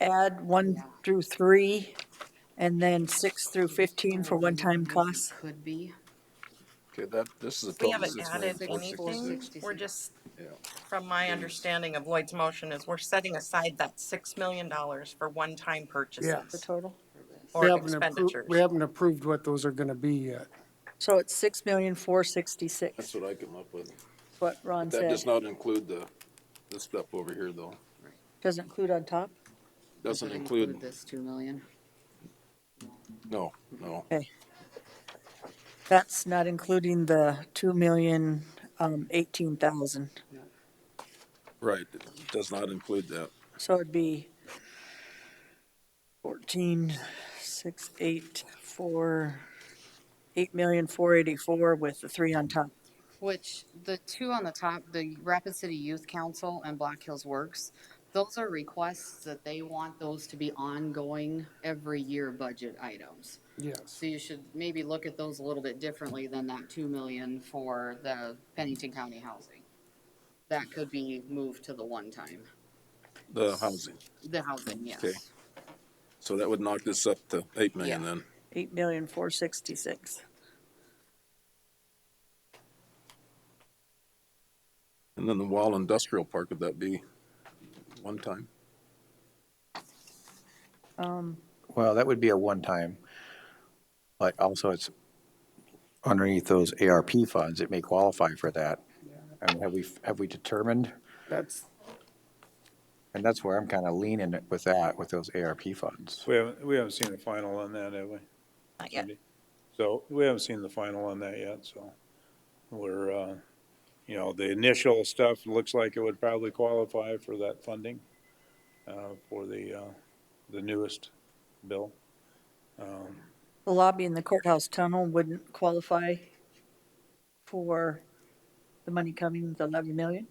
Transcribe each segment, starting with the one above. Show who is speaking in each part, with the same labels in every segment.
Speaker 1: add one through three, and then six through 15 for one-time costs?
Speaker 2: Could be.
Speaker 3: Okay, that, this is a
Speaker 4: We
Speaker 3: total of
Speaker 4: haven't
Speaker 3: six million,
Speaker 4: added
Speaker 3: four
Speaker 4: anything.
Speaker 3: sixty-six.
Speaker 4: We're just,
Speaker 3: Yeah.
Speaker 4: from my understanding of Lloyd's motion is we're setting aside that six million dollars for one-time
Speaker 5: Yes.
Speaker 4: purchases
Speaker 1: Total.
Speaker 5: We
Speaker 4: or
Speaker 5: haven't appro- We
Speaker 4: expenditures.
Speaker 5: haven't approved what those are gonna be yet.
Speaker 1: So it's 6,466,
Speaker 3: That's what I come up with.
Speaker 1: what Ron
Speaker 3: That
Speaker 1: said.
Speaker 3: does not include the, this stuff over here though.
Speaker 1: Doesn't include on top?
Speaker 3: Doesn't
Speaker 2: Could
Speaker 3: include,
Speaker 2: This two million.
Speaker 3: no, no.
Speaker 1: Okay. That's not including the um, 2,018,000.
Speaker 3: Right, it does not include that.
Speaker 1: So it'd be 14, 6, 8, 4, 8,484 with the three on top.
Speaker 2: Which the two on the top, the Rapid City Youth Council and Black Hills Works, those are requests that they want those to be ongoing every year budget items.
Speaker 5: Yes.
Speaker 2: So you should maybe look at those a little bit differently than that two million for the Pennington County housing. That could be moved to the one time,
Speaker 3: The housing.
Speaker 2: the housing, yes.
Speaker 3: Okay. So that would knock this up to eight million
Speaker 2: Yeah.
Speaker 3: then.
Speaker 1: 8,466.
Speaker 3: And then the wall industrial park, would that be one time?
Speaker 6: Well, that would be a one-time, but also it's underneath those ARP funds, it may qualify for that. And have we, have we determined,
Speaker 5: That's,
Speaker 6: and that's where I'm kind of leaning with that, with those ARP funds.
Speaker 7: We haven't, we haven't seen the final on that, have we?
Speaker 4: Not yet.
Speaker 7: So we haven't seen the final on that yet, so we're, uh, you know, the initial stuff looks like it would probably qualify for that funding, uh, for the, uh, the newest bill.
Speaker 1: The lobby in the courthouse tunnel wouldn't qualify for the money coming, the 11 million?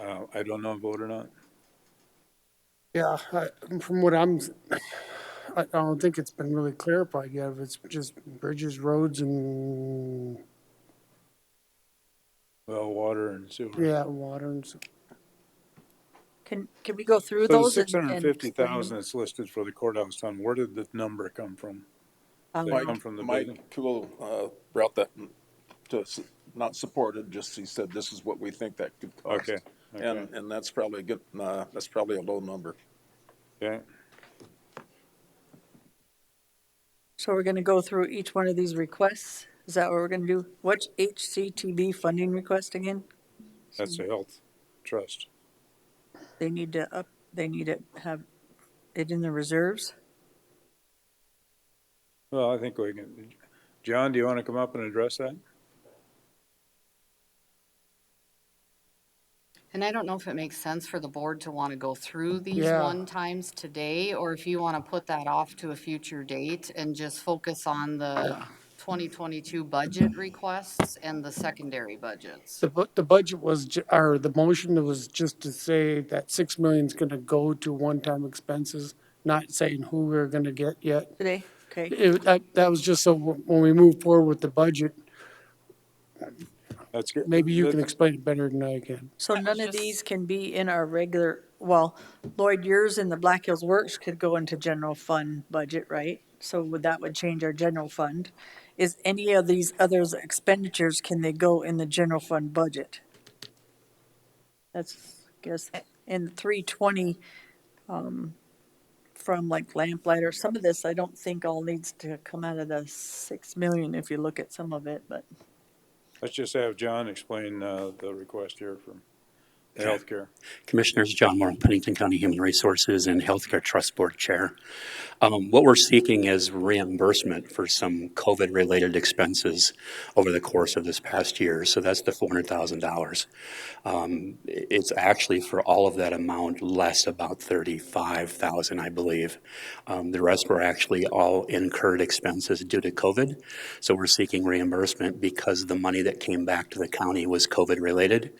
Speaker 7: Uh, I don't know if vote or not.
Speaker 5: yeah, I- from what I'm, I I don't think it's been really clarified yet, if it's just bridges, roads, and,
Speaker 7: Well, water and sewer.
Speaker 5: yeah, water and, s-
Speaker 1: Can, can we go through
Speaker 7: So the
Speaker 1: those? and-
Speaker 7: six hundred and fifty thousand
Speaker 1: and
Speaker 7: that's listed for the courthouse fund, where did the number come from?
Speaker 1: explain?
Speaker 7: Mike.
Speaker 1: Um,
Speaker 7: Come from the building.
Speaker 3: Mike Cool, uh, brought that to, s- not supported, just he said, this is what we think that could cost.
Speaker 7: Okay,
Speaker 3: And,
Speaker 7: okay.
Speaker 3: and that's probably a good, uh, that's probably a low number.
Speaker 7: Okay,
Speaker 1: So we're going to go through each one of these requests? Is that what we're going to do? What's HCTB funding request again?
Speaker 7: that's the health trust.
Speaker 1: They need to up, they need to have it in the reserves?
Speaker 7: Well, I think we can, John, do you want to come up and address that?
Speaker 2: And I don't know if it makes sense for the board to want to go through these
Speaker 5: Yeah.
Speaker 2: one times today, or if you want to put that off to a future date and just focus on the twenty twenty-two budget requests and the secondary budgets.
Speaker 5: the, bu- the budget was, ju- or the motion was just to say that six million's gonna go to one-time expenses, not saying who we're gonna get yet.
Speaker 1: Today? Okay,
Speaker 5: It, that, that was just so when when we move forward with the budget,
Speaker 7: That's good.
Speaker 5: maybe you
Speaker 7: That-
Speaker 5: can explain it better than I can.
Speaker 1: so none of these can be in our regular, well, Lloyd, yours and the Black Hills Works could go into general fund budget, right? So would- that would change our general fund. Is any of these others expenditures, can they go in the general fund budget? That's, I guess, in three twenty, um, from like lamplighter, some of this, I don't think all needs to come out of the six million if you look at some of it, but.
Speaker 7: Let's just have John explain uh, the request here from the healthcare.
Speaker 8: Commissioners, John Moore, Pennington County Human Resources and Healthcare Trust Board Chair. Um, What we're seeking is reimbursement for some COVID-related expenses over the course of this past year, so that's the $400,000. Um, i- It's actually for all of that amount, less about $35,000, I believe. Um, The rest were actually all incurred expenses due to COVID, so we're seeking reimbursement because the money that came back to the county was COVID-related.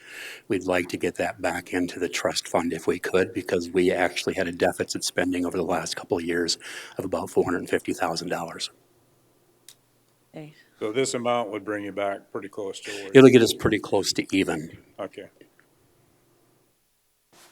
Speaker 8: We'd like to get that back into the trust fund if we could, because we actually had a deficit spending over the last couple of years of about $450,000.
Speaker 1: Hey.
Speaker 7: So this amount would bring you back pretty close to where,
Speaker 8: It'll get us pretty close to even.
Speaker 7: okay.